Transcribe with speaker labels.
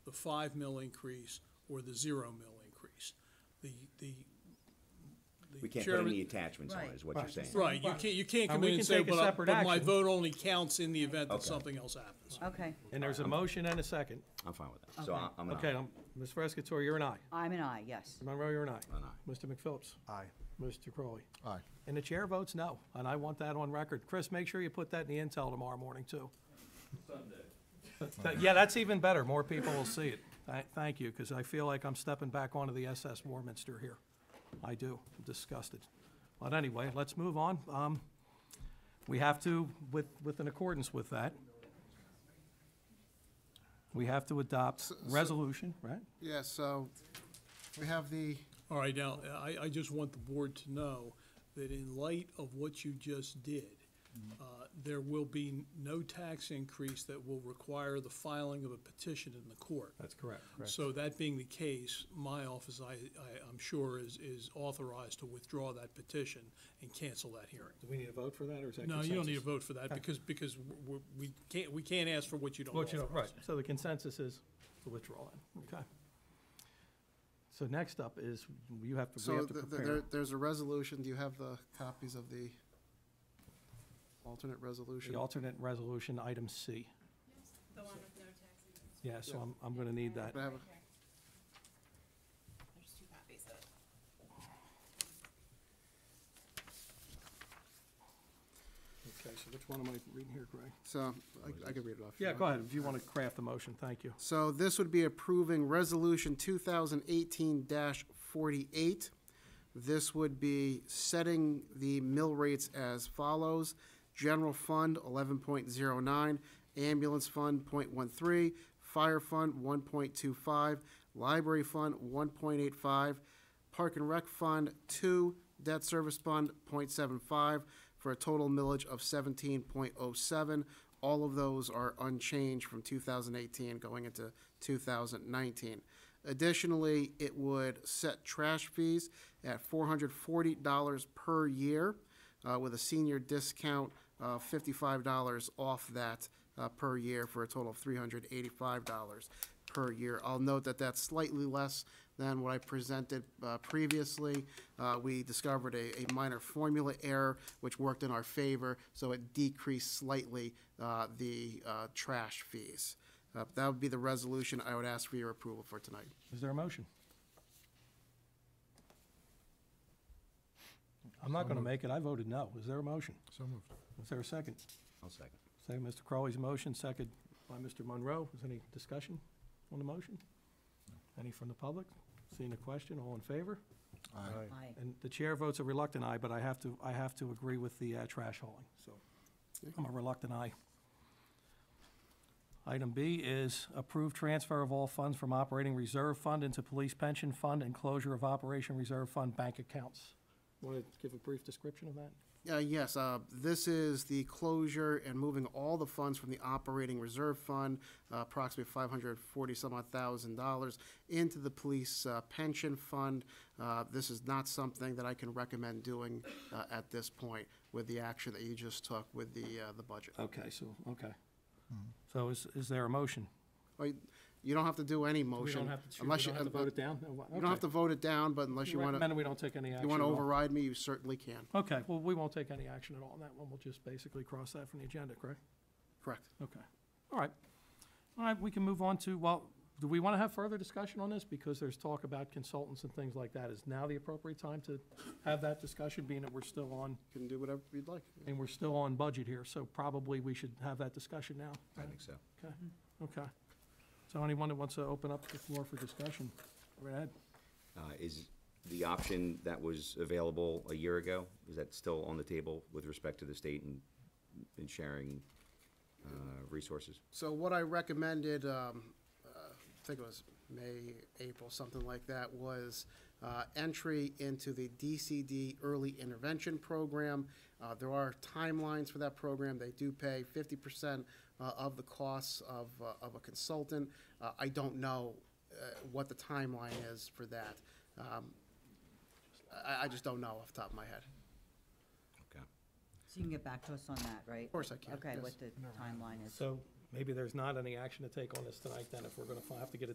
Speaker 1: the five mil increase or the zero mil increase. The, the. the
Speaker 2: We can't put
Speaker 1: chairman-
Speaker 2: any attachments on it, is what you're
Speaker 3: Right.
Speaker 2: saying.
Speaker 1: Right, you can't, you can't
Speaker 3: And
Speaker 1: come
Speaker 3: we
Speaker 1: in and
Speaker 3: can
Speaker 1: say,
Speaker 3: take a
Speaker 1: but, I-
Speaker 3: separate
Speaker 1: but my
Speaker 3: action.
Speaker 1: vote only counts in the event that
Speaker 2: Okay.
Speaker 1: something else happens.
Speaker 4: Okay,
Speaker 3: And there's a motion and a second.
Speaker 2: I'm fine with that. So I- I'm an
Speaker 3: Okay,
Speaker 2: aye.
Speaker 3: um, Ms. Frescatore, you're an aye.
Speaker 4: I'm an aye, yes.
Speaker 3: Mr. Monroe, you're an aye.
Speaker 2: An aye.
Speaker 3: Mr. McPhillips.
Speaker 5: Aye.
Speaker 3: Mr. Crowley.
Speaker 5: Aye.
Speaker 3: And the chair votes no, and I want that on record. Chris, make sure you put that in the intel tomorrow morning, too. Sunday. Yeah, that's even better. More people will see it. Tha- Thank you, because I feel like I'm stepping back onto the SS Warminster here. I do. I'm disgusted. But anyway, let's move on. Um, We have to, with, with in accordance with that, we have to adopt resolution, right?
Speaker 5: Yeah, so we have the,
Speaker 1: All right, now, I, I just want the board to know that in light of what you just did,
Speaker 3: Mm-hmm.
Speaker 1: uh, there will be no tax increase that will require the filing of a petition in the court.
Speaker 3: That's correct.
Speaker 1: So that being the case, my office, I, I, I'm sure is, is authorized to withdraw that petition and cancel that hearing.
Speaker 3: Do we need a vote for that, or is that
Speaker 1: No, you don't need to
Speaker 3: consensus?
Speaker 1: vote for that because, because we, we can't, we can't ask for what you don't
Speaker 3: Vote you don't-
Speaker 1: authorize.
Speaker 3: right. So the consensus is to withdraw it, okay. So next up is, you have to, we
Speaker 5: so
Speaker 3: have to
Speaker 5: th- th-
Speaker 3: prepare.
Speaker 5: there, there's a resolution, do you have the copies of the alternate resolution?
Speaker 3: The alternate resolution, item C.
Speaker 6: The one with no taxes.
Speaker 3: Yeah, so I'm, I'm gonna need that.
Speaker 5: Could I have a-
Speaker 6: There's two copies of it.
Speaker 3: Okay, so which one am I reading here, Greg?
Speaker 5: So, I- I can read it off. if you
Speaker 3: Yeah,
Speaker 5: want.
Speaker 3: go ahead, if you wanna craft the motion, thank you.
Speaker 5: So this would be approving Resolution 2018-48. This would be setting the mill rates as follows. General Fund, 11.09, Ambulance Fund, .13, Fire Fund, 1.25, Library Fund, 1.85, Park and Rec Fund, 2, Debt Service Fund, .75, for a total millage of 17.07. All of those are unchanged from 2018 going into 2019. Additionally, it would set trash fees at $440 per year, uh, with a senior discount of $55 off that uh, per year for a total of $385 per year. I'll note that that's slightly less than what I presented uh, previously. Uh, We discovered a a minor formula error, which worked in our favor, so it decreased slightly uh, the uh, trash fees. Uh, That would be the resolution I would ask for your approval for tonight.
Speaker 3: Is there a motion? I'm not gonna make it, I voted no. Is there a motion? So moved. Is there a second?
Speaker 2: I'll second.
Speaker 3: Second, Mr. Crowley's motion, second by Mr. Monroe. Is any discussion on the motion? Any from the public? Seeing the question, all in favor?
Speaker 4: Aye.
Speaker 3: And the chair votes a reluctant aye, but I have to, I have to agree with the uh, trash hauling, so I'm a reluctant aye. Item B is approve transfer of all funds from operating reserve fund into police pension fund and closure of operation reserve fund bank accounts. Want to give a brief description of that?
Speaker 5: Uh, Yes, uh, this is the closure and moving all the funds from the operating reserve fund, uh, approximately five hundred forty some odd thousand dollars, into the police uh, pension fund. Uh, This is not something that I can recommend doing uh, at this point with the action that you just took with the, uh, the budget.
Speaker 3: Okay, so, okay. So is, is there a motion?
Speaker 5: Well, Oh, you- You don't have to do any
Speaker 3: We
Speaker 5: motion.
Speaker 3: don't have to, we
Speaker 5: unless uh,
Speaker 3: don't have to vote it down?
Speaker 5: You don't have to vote it down, but unless you want
Speaker 3: Recommend
Speaker 5: to,
Speaker 3: we don't take any action
Speaker 5: you want
Speaker 3: at
Speaker 5: to
Speaker 3: all.
Speaker 5: override me, you certainly can.
Speaker 3: Okay, well, we won't take any action at all on that one. We'll just basically cross that from the agenda, correct?
Speaker 5: Correct.
Speaker 3: Okay, all right. All right, we can move on to, well, do we want to have further discussion on this? Because there's talk about consultants and things like that. Is now the appropriate time to have that discussion, being that we're still on,
Speaker 5: You can do whatever you'd like.
Speaker 3: and we're still on budget here, so probably we should have that discussion now.
Speaker 2: I think so.
Speaker 3: Okay, okay. So anyone that wants to open up the floor for discussion, go ahead.
Speaker 2: Uh, Is the option that was available a year ago, is that still on the table with respect to the state and, and sharing uh, resources?
Speaker 5: So what I recommended, um, uh, I think it was May, April, something like that, was, uh, entry into the DCD Early Intervention Program. Uh, there are timelines for that program. They do pay fifty percent, uh, of the costs of, uh, of a consultant. Uh, I don't know, uh, what the timeline is for that. Um, I, I just don't know off the top of my head.
Speaker 2: Okay.
Speaker 4: So you can get back to us on that, right? Of
Speaker 5: course I can,
Speaker 4: Okay,
Speaker 5: yes.
Speaker 4: what the timeline is.
Speaker 3: So maybe there's not any action to take on this tonight, then, if we're going to have to get it